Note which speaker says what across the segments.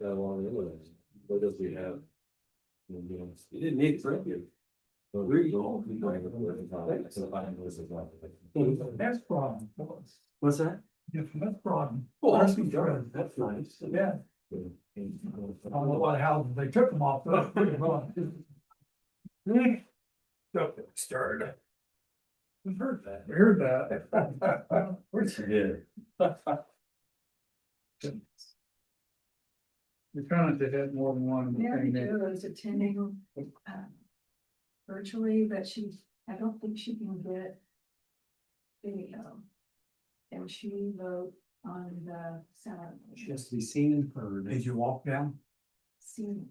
Speaker 1: that along the inland. What does we have? You didn't need it for you. Where you all?
Speaker 2: That's broad.
Speaker 1: What's that?
Speaker 2: Yeah, that's broad.
Speaker 1: Oh,
Speaker 2: that's-
Speaker 1: That's nice.
Speaker 2: Yeah, I don't know what houses they took them off. but- So, Started. We heard that. We heard that. We're-
Speaker 1: Yeah.
Speaker 2: We kind of had more than one
Speaker 3: Yeah, I
Speaker 2: thing there.
Speaker 3: do, I was attending, um, virtually, but she, I don't think she can get video. And she wrote on the sound.
Speaker 4: to be seen and heard.
Speaker 2: Did you walk down?
Speaker 3: Scene,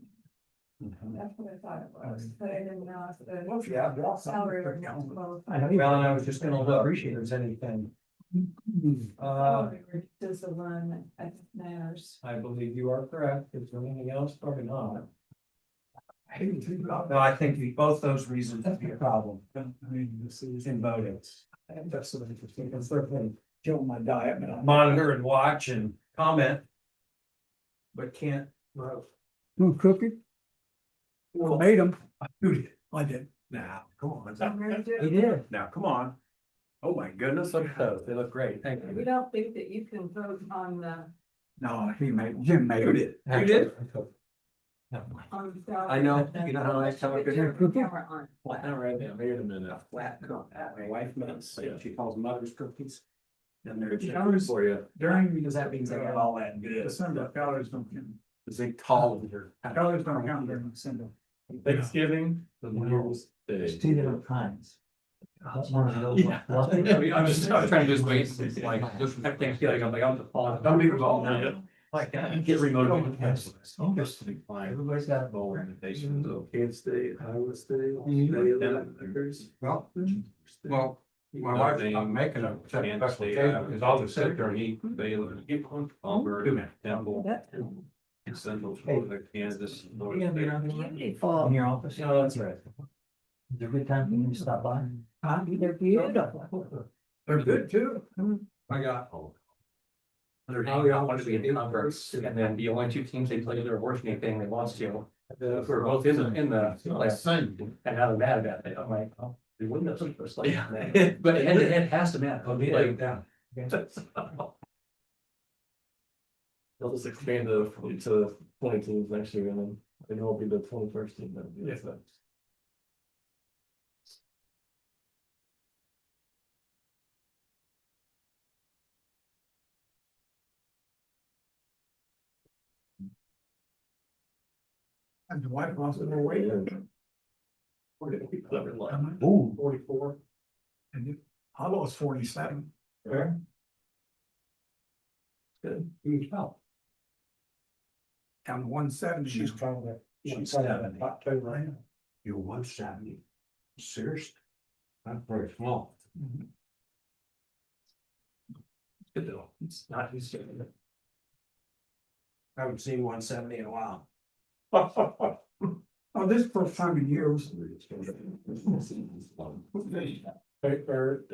Speaker 3: that's what I thought it
Speaker 4: Um,
Speaker 3: was, but I didn't know if
Speaker 2: Well,
Speaker 3: the.
Speaker 2: if you have walked down,
Speaker 3: Salary
Speaker 2: you're
Speaker 3: or not,
Speaker 2: down.
Speaker 3: well,
Speaker 4: I know, well, and I was just gonna look, appreciate if there's anything. Uh,
Speaker 3: salary or does the one that matters.
Speaker 4: I believe you are correct, is there anything else, probably not.
Speaker 2: I hate to think about
Speaker 4: No, I think we- both those reasons would be a problem
Speaker 2: that. I mean, this is.
Speaker 4: in voting.
Speaker 2: That's so interesting.
Speaker 4: You can certainly
Speaker 2: Kill my diet, man.
Speaker 4: monitor and watch and comment. But can't vote.
Speaker 5: Who cooked it?
Speaker 4: Well,
Speaker 5: Made them.
Speaker 2: Who did? I did. Now, come on.
Speaker 4: He did.
Speaker 2: Now, come on. Oh, my goodness.
Speaker 4: Look at those, they look great, thank
Speaker 3: We
Speaker 4: you.
Speaker 3: don't think that you can vote on the,
Speaker 2: No, he made, Jim made it.
Speaker 4: You did?
Speaker 3: on the. salary,
Speaker 4: I know,
Speaker 3: but
Speaker 4: you know how I
Speaker 3: unless you
Speaker 4: tell
Speaker 3: put
Speaker 4: good-
Speaker 3: your camera on.
Speaker 4: Well, all right,
Speaker 1: Yeah, wait a minute.
Speaker 4: flat coat, my wife makes, she calls mother's cookies. And they're.
Speaker 1: For you.
Speaker 2: During.
Speaker 4: Because that means they got all that good.
Speaker 2: December, calories don't count.
Speaker 4: It's a tall.
Speaker 2: Calories don't count during December.
Speaker 1: Thanksgiving. The New Year's
Speaker 4: There's
Speaker 1: Day.
Speaker 4: two different kinds. Uh, one of those,
Speaker 2: Uh-huh. Yeah.
Speaker 4: one-
Speaker 1: Yeah, I mean, I'm just- I'm trying to lose weight,
Speaker 4: Yeah.
Speaker 1: it's like, just have things feeling, I'm like, I'm the fall.
Speaker 4: Don't be wrong.
Speaker 1: Yeah.
Speaker 4: Like, uh,
Speaker 1: Get remote.
Speaker 4: Yes.
Speaker 1: Just to climb.
Speaker 4: Everybody's got a
Speaker 1: Bowl
Speaker 4: bowl.
Speaker 1: invitations
Speaker 6: Mm-hmm.
Speaker 1: of Kansas State, Iowa State.
Speaker 4: Mhm.
Speaker 6: Well, Mm-hmm. well, my wife's not making a second special occasion, because I'll just sit there and eat
Speaker 1: Mm-hmm.
Speaker 6: Mm-hmm. Baylor.
Speaker 1: Auburn, Temple,
Speaker 3: That-
Speaker 1: and Central Florida, Kansas. North
Speaker 4: You gonna be
Speaker 1: Dakota.
Speaker 4: around here?
Speaker 3: Beautiful.
Speaker 4: In your office? No, that's right. Is there a good time for you to stop by? Huh?
Speaker 3: They're beautiful.
Speaker 2: They're good too. oh,
Speaker 6: I got,
Speaker 4: They're
Speaker 1: Now we all want to be in conference,
Speaker 4: conference.
Speaker 1: and then the only two teams they play their worst game thing they lost to, uh, were both in the, in the playoffs. And now they're mad about that, I'm like, oh, they wouldn't have took us like that. But it, it has to matter. Like,
Speaker 4: Yeah.
Speaker 1: They'll just expand the, to twenty teams next year, and then, and it'll be the twenty-first team that would be
Speaker 2: Yeah.
Speaker 1: affected.
Speaker 2: And the wife lost her weight. How much?
Speaker 4: Ooh.
Speaker 1: Forty-four.
Speaker 2: And you- I lost forty-seven.
Speaker 4: Where?
Speaker 1: Good.
Speaker 4: You felt.
Speaker 2: And one seventy.
Speaker 4: She's
Speaker 2: probably.
Speaker 4: she's seventy.
Speaker 2: October.
Speaker 6: you're one seventy. Seriously? That's very small.
Speaker 1: Good though, it's not his.
Speaker 4: I haven't seen one seventy in a while.
Speaker 2: Oh, this is the first time in years.
Speaker 1: Paper,